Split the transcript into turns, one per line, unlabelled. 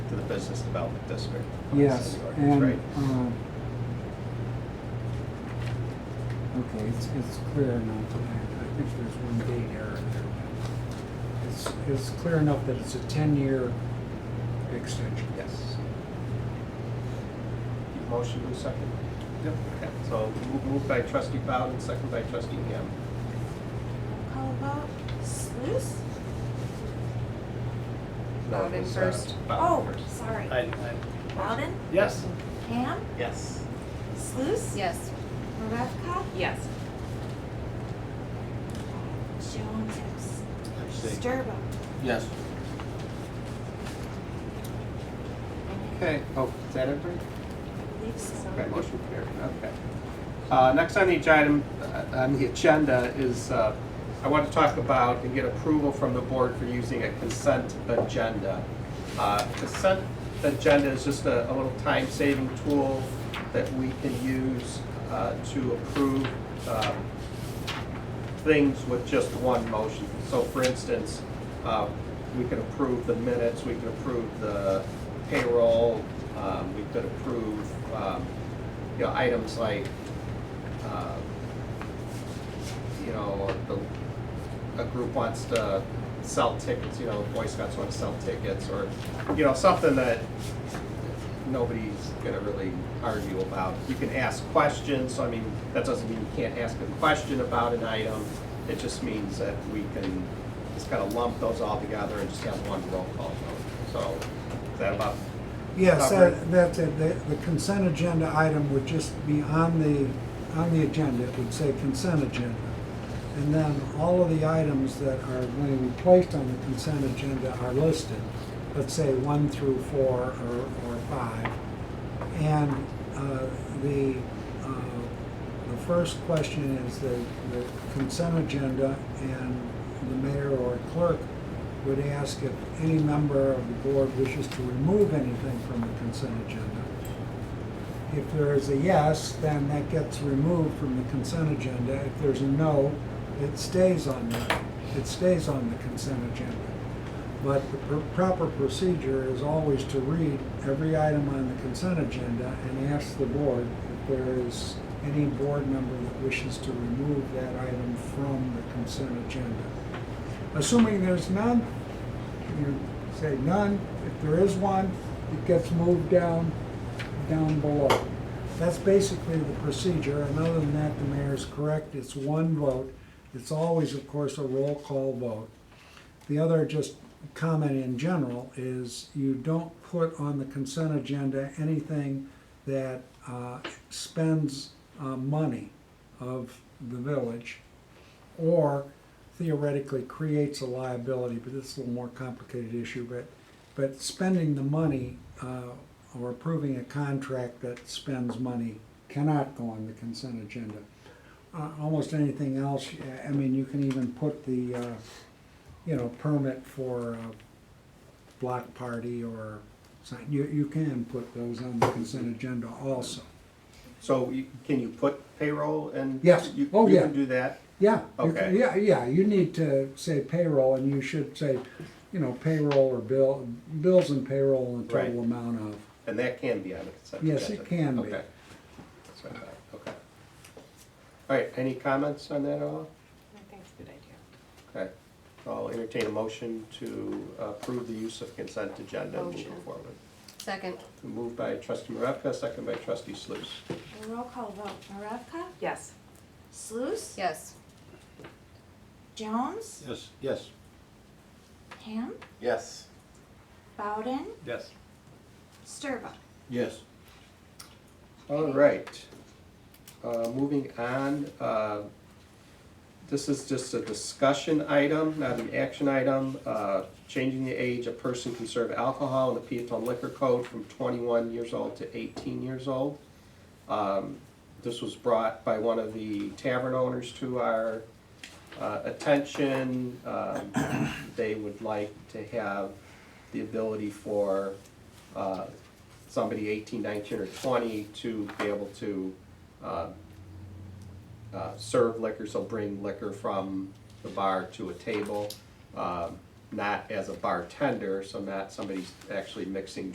to the business development district.
Yes,
That's in the
and,
ordinance, right?
um, uh, okay, it's, it's clear enough, I, I think there's one date error there. It's, it's clear enough that it's a ten-year extension.
Yes.
Motion in second.
Yep. Okay. So mo- moved by trustee Bowden, second by trustee Ham.
Call vote. Sluse?
No, it
Bowden
was, uh,
first.
Oh,
Bowden first.
sorry.
I, I,
Bowden?
yes.
Ham?
Yes.
Sluse?
Yes.
Maravka?
Yes.
Jones, yes. Sturba?
Yes.
Okay, oh, is that everybody?
I believe so.
Okay, motion carried, okay. Uh, Next on each item, uh, on the agenda is, uh, I want to talk about and get approval from the board for using a consent agenda. Uh, Consent agenda is just a a little time-saving tool that we can use uh, to approve um, things with just one motion. So for instance, um, we could approve the minutes, we could approve the payroll, um, we could approve, um, you know, items like, uh, you know, the, a group wants to sell tickets, you know, Boy Scouts want to sell tickets, or, you know, something that nobody's gonna really argue about. You can ask questions, so I mean, that doesn't mean you can't ask a question about an item. It just means that we can just kind of lump those all together and just have one roll call vote. So, is that about,
Yes,
Robert.
that, that's it. The the consent agenda item would just be on the, on the agenda. It would say consent agenda. And then all of the items that are going to be placed on the consent agenda are listed. Let's say one through four or, or five. And uh, the, uh, the first question is the the consent agenda and the mayor or clerk would ask if any member of the board wishes to remove anything from the consent agenda. If there is a yes, then that gets removed from the consent agenda. If there's a no, it stays on the, it stays on the consent agenda. But the pr- proper procedure is always to read every item on the consent agenda and ask the board if there is any board member that wishes to remove that item from the consent agenda. Assuming there's none, you say none. If there is one, it gets moved down, down below. That's basically the procedure, and other than that, the mayor's correct, it's one vote. It's always, of course, a roll call vote. The other just comment in general is you don't put on the consent agenda anything that uh, spends uh, money of the village or theoretically creates a liability, but this is a little more complicated issue, but, but spending the money, uh, or approving a contract that spends money cannot go on the consent agenda. Uh, almost anything else, I mean, you can even put the, uh, you know, permit for a block party or sign, you, you can put those on the consent agenda also.
so you- can you put payroll and?
Yes.
you-
Oh,
You
yeah.
can do that?
Yeah. you can-
Okay.
Yeah, yeah, you need to say payroll, and you should say, you know, payroll or bill, bills and payroll and total
Right.
amount of.
And that can be on the consent agenda?
Yes, it can be.
Okay. That's what I thought. Okay. All right, any comments on that at all?
I think it's a good idea.
Okay, I'll entertain a motion to approve the use of consent agenda and move it
Motion.
forward.
Second.
Moved by trustee Maravka, second by trustee Sluse.
Roll call vote. Maravka?
Yes.
Sluse?
Yes.
Jones?
Yes. Yes.
Ham?
Yes.
Bowden?
Yes.
Sturba?
Yes.
All right, Uh, moving on, uh, this is just a discussion item, not an action item. Uh, Changing the age a person can serve alcohol in the Peatone Liquor Code from 21 years old to 18 years old. Um, This was brought by one of the tavern owners to our uh, attention. Um, They would like to have the ability for uh, somebody 18, 19, or 20 to be able to uh, uh, serve liquor, so bring liquor from the bar to a table, um, not as a bartender, so not somebody's actually mixing